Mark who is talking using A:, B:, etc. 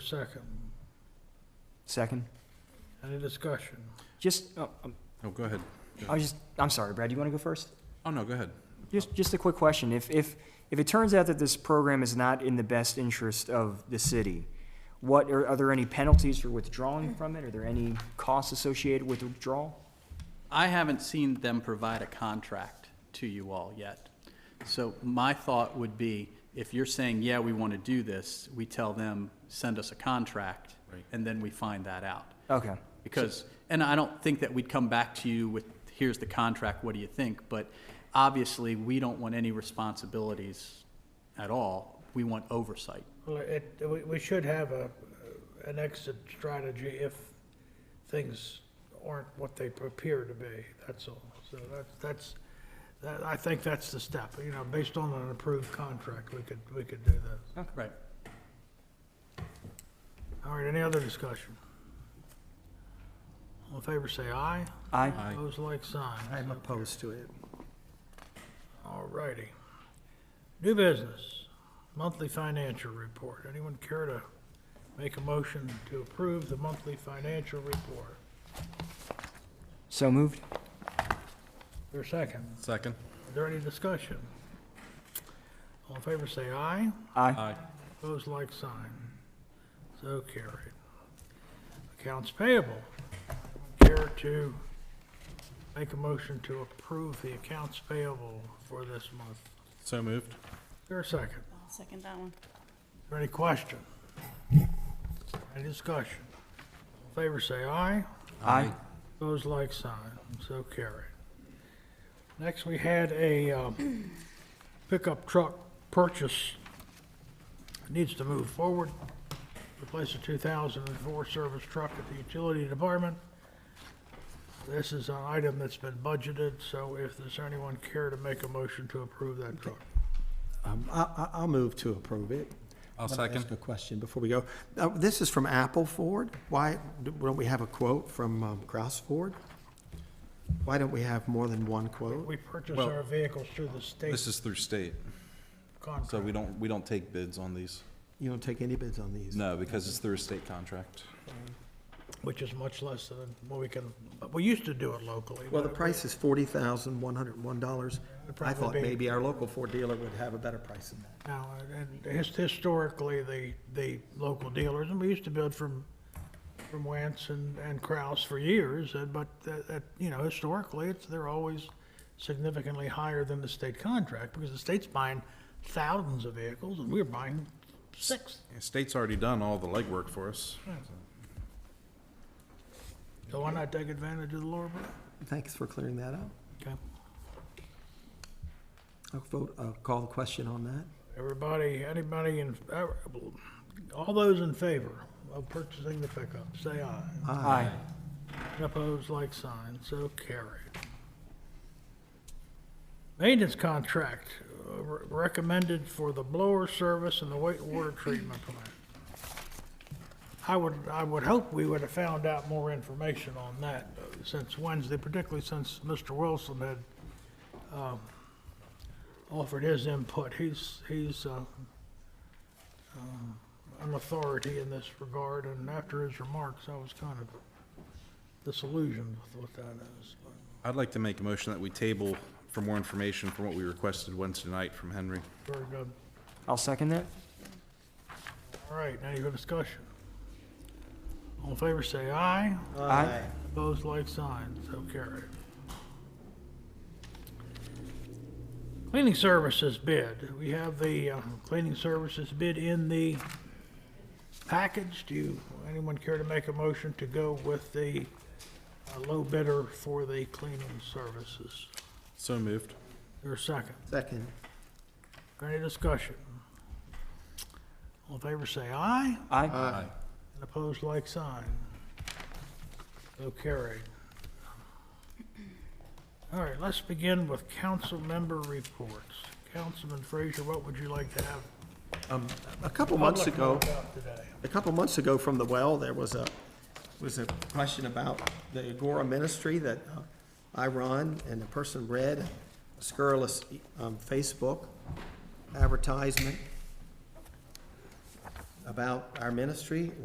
A: second.
B: Second.
A: Any discussion?
B: Just, oh, um,
C: Oh, go ahead.
B: I was just, I'm sorry, Brad, you want to go first?
C: Oh, no, go ahead.
B: Just, just a quick question. If, if, if it turns out that this program is not in the best interest of the city, what, are, are there any penalties for withdrawing from it? Are there any costs associated with withdrawal?
D: I haven't seen them provide a contract to you all yet. So my thought would be, if you're saying, yeah, we want to do this, we tell them, send us a contract,
C: Right.
D: and then we find that out.
B: Okay,
D: Because, and I don't think that we'd come back to you with, here's the contract, what do you think? But obviously, we don't want any responsibilities at all. We want oversight.
A: Well, it, we, we should have a, an exit strategy if things aren't what they appear to be, that's all. So that's, that's, that, I think that's the step, you know, based on an approved contract, we could, we could do that.
D: Right.
A: All right, any other discussion? All in favor, say aye.
B: aye.
C: Aye.
A: Opposed, like sign.
E: I'm opposed to it.
A: All righty. New business, monthly financial report. Anyone care to make a motion to approve the monthly financial report?
B: So moved?
A: Your second.
C: Second.
A: Is there any discussion? All in favor, say aye.
B: Aye.
A: Opposed, like sign. So carried. Accounts payable. Care to make a motion to approve the accounts payable for this month?
C: So moved.
A: Your second.
F: I'll second that one.
A: Is there any question? Any discussion? All in favor, say aye.
B: Aye.
A: Opposed, like sign. So carried. Next, we had a um, pickup truck purchase. Needs to move forward. Replace a 2004 service truck at the utility department. This is an item that's been budgeted, so if there's anyone care to make a motion to approve that truck.
E: Um, I, I, I'll move to approve it.
C: I'll
E: Let me
C: second.
E: Ask a question before we go. Uh, this is from Apple Ford. Why don't we have a quote from um, Kraus Ford? Why don't we have more than one quote?
A: We purchase
C: Well,
A: our vehicles through the state
C: This is through state,
A: contract.
C: so we don't, we don't take bids on these.
E: You don't take any bids on these?
C: No, because it's through a state contract.
A: which is much less than what we can, we used to do it locally.
E: Well, the
A: but-
E: price is forty thousand, one hundred and one dollars.
A: It'd
E: I
A: probably
E: thought
A: be-
E: maybe our local Ford dealer would have a better price than that.
A: Now, and his- historically, the, the local dealers, and we used to build from, from Wentz and, and Kraus for years, and, but that, that, you know, historically, it's, they're always significantly higher than the state contract, because the state's buying thousands of vehicles, and we're buying six.
C: State's already done all the legwork for us.
A: So why not take advantage of the lower bid?
E: Thanks for clearing that up.
A: Okay.
E: I'll vote, uh, call the question on that.
A: Everybody, anybody in, all those in favor of purchasing the pickup, say aye.
B: Aye.
A: Opposed, like sign, so carried. Maintenance contract uh, re- recommended for the blower service and the wa- water treatment plant. I would, I would hope we would have found out more information on that uh, since Wednesday, particularly since Mr. Wilson had um, offered his input. He's, he's uh, um, an authority in this regard, and after his remarks, I was kind of disillusioned with what that is. but
C: I'd like to make a motion that we table for more information from what we requested Wednesday night from Henry.
A: Very good.
B: I'll second that.
A: All right, any other discussion? All in favor, say aye.
B: Aye.
A: Opposed, like sign, so carried. Cleaning services bid. We have the uh, cleaning services bid in the package. Do you, anyone care to make a motion to go with the uh, low bidder for the cleaning services?
C: So moved.
A: Your second.
E: Second.
A: Any discussion? All in favor, say aye.
B: Aye.
A: And opposed, like sign. So carried. All right, let's begin with council member reports. Councilman Frazier, what would you like to have?
E: A couple months
A: public
E: ago.
A: know about Today.
E: A couple months ago from the well, there was a, was a question about the Agora Ministry that uh, I run, and the person read a scurrilous um, Facebook advertisement about our ministry,